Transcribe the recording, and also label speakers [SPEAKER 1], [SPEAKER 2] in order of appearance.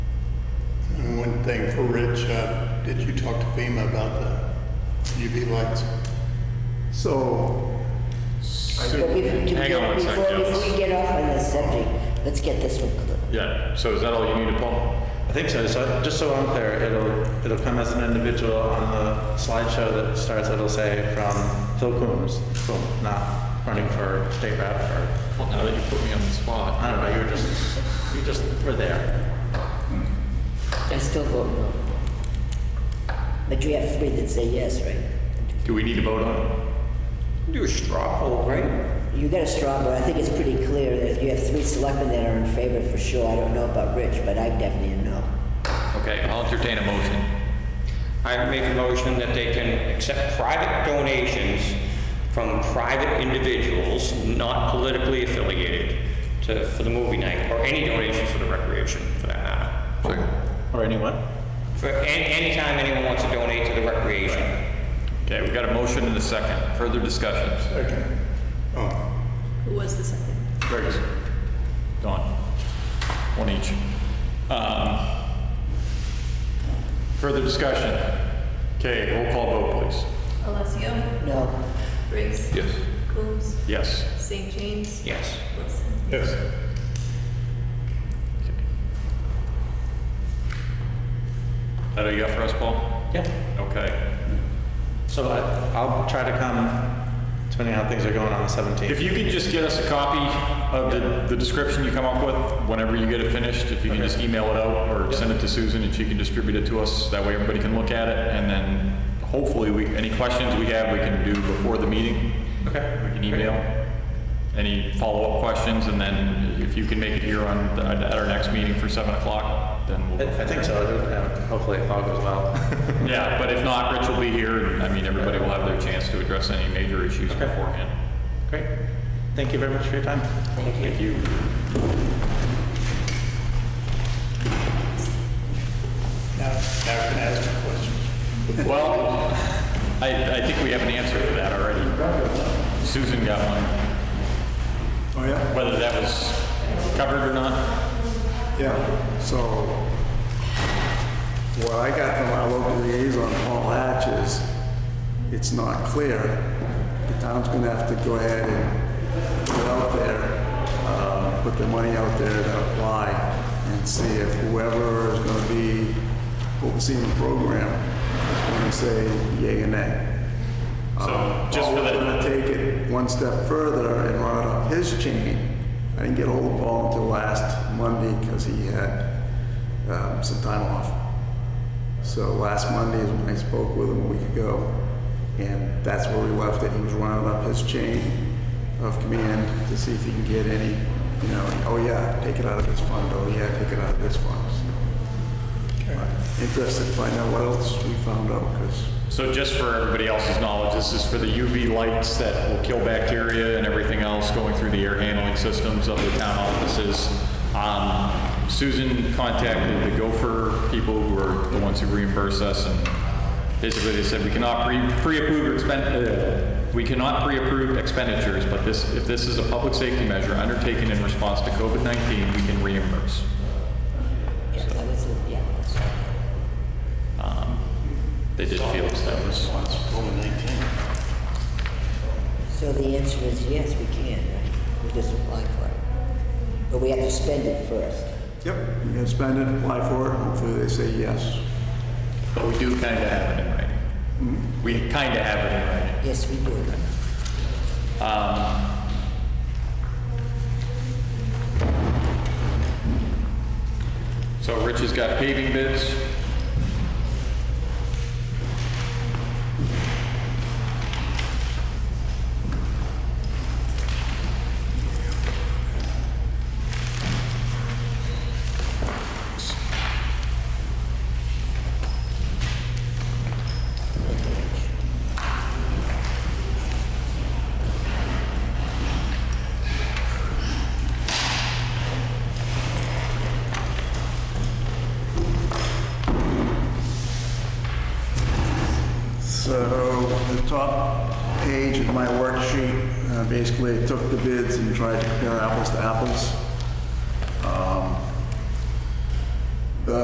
[SPEAKER 1] one thing for Rich, uh, did you talk to FEMA about the UV lights?
[SPEAKER 2] So,
[SPEAKER 3] But we- to
[SPEAKER 4] Hang
[SPEAKER 3] get-
[SPEAKER 4] on one sec,
[SPEAKER 3] Before,
[SPEAKER 4] Joe.
[SPEAKER 3] before we get off on this subject, let's get this one clear.
[SPEAKER 4] Yeah, so is that all you need to pull?
[SPEAKER 5] I think so. So just so I'm clear, it'll it'll come as an individual on the slideshow that starts. It'll say from Phil Coombs, boom, not running for state rep or
[SPEAKER 4] Well, now that you put me on the spot.
[SPEAKER 5] I don't know. You were just you just were there.
[SPEAKER 3] I still vote no. But you have three that say yes, right?
[SPEAKER 4] Do we need to vote on
[SPEAKER 5] Do a straw poll, right?
[SPEAKER 3] You got a straw vote. I think it's pretty clear that you have three selectmen that are in favor for sure. I don't know about Rich, but I'm definitely a no.
[SPEAKER 4] it? Okay, I'll entertain a motion.
[SPEAKER 6] I make a motion that they can accept private donations from private individuals, not politically affiliated, to, for the movie night, or any donation for the recreation, for that matter.
[SPEAKER 4] Second.
[SPEAKER 5] Or anyone?
[SPEAKER 6] For any, anytime anyone wants to donate to the recreation.
[SPEAKER 4] Okay, we got a motion and a second. Further discussions?
[SPEAKER 1] Second. Oh,
[SPEAKER 7] Who was the second?
[SPEAKER 4] Greg's. Don. One each. Um, Further discussion? Okay, roll call vote, please.
[SPEAKER 7] Alessio,
[SPEAKER 3] No,
[SPEAKER 7] Briggs,
[SPEAKER 4] Yes.
[SPEAKER 7] Coombs,
[SPEAKER 4] Yes.
[SPEAKER 7] St. James,
[SPEAKER 6] Yes.
[SPEAKER 7] Wilson.
[SPEAKER 1] yes.
[SPEAKER 4] That all you got for us, Paul?
[SPEAKER 5] Yeah.
[SPEAKER 4] Okay.
[SPEAKER 5] So I, I'll try to come, depending on how things are going on the 17th.
[SPEAKER 4] If you can just get us a copy of the, the description you come up with, whenever you get it finished, if you can just email it out or send it to Susan and she can distribute it to us, that way everybody can look at it, and then hopefully we, any questions we have, we can do before the meeting.
[SPEAKER 5] Okay.
[SPEAKER 4] We can email any follow-up questions, and then if you can make it here on, the- at our next meeting for seven o'clock, then we'll.
[SPEAKER 5] I I think so. Yeah, Hopefully it all goes well.
[SPEAKER 4] Yeah, but if not, Rich will be here, and I mean, everybody will have their chance to address any major issues
[SPEAKER 5] Okay.
[SPEAKER 4] beforehand.
[SPEAKER 5] Great. Thank you very much for your time.
[SPEAKER 4] Thank you.
[SPEAKER 1] Now, now I can ask you a question.
[SPEAKER 4] Well, I, I think we have an answer for that already. Susan got one,
[SPEAKER 2] oh yeah,
[SPEAKER 4] whether that was covered or not.
[SPEAKER 2] yeah. So, what I got from our local liaison, Paul Hatch, is it's not clear. The town's gonna have to go ahead and put it out there, uh, put the money out there to apply and see if whoever is gonna be overseeing the program is gonna say yay or nay. Uh,
[SPEAKER 4] So just for
[SPEAKER 2] Paul was
[SPEAKER 4] the,
[SPEAKER 2] gonna take it one step further and run it up his chain. I didn't get hold of Paul until last Monday because he had um, some time off. So last Monday is when I spoke with him a week ago, and that's where we left it. He was running up his chain of command to see if he can get any, you know, oh yeah, take it out of this fund, oh yeah, take it out of this fund. Interested to find out what else we found out because
[SPEAKER 4] so just for everybody else's knowledge, this is for the UV lights that will kill bacteria and everything else going through the air handling systems of the town offices. Um, Susan contacted the Gopher people who are the ones who reimburse us and basically they said we cannot pre- pre-approve expen- uh, we cannot pre-approve expenditures, but this, if this is a public safety measure undertaken in response to COVID-19, we can reimburse.
[SPEAKER 3] yeah, that was, yeah. that's-
[SPEAKER 4] They did feel as that was.
[SPEAKER 3] So the answer is yes, we can, right? We just apply for it. But we have to spend it first.
[SPEAKER 2] Yep, you gotta spend it, apply for it, hopefully they say yes.
[SPEAKER 4] But we do kind of have it in writing. We kind of have it in writing.
[SPEAKER 3] Yes, we do.
[SPEAKER 4] So Rich has got paving bids.
[SPEAKER 2] So the top page of my worksheet, uh, basically I took the bids and tried to compare apples to apples. Um,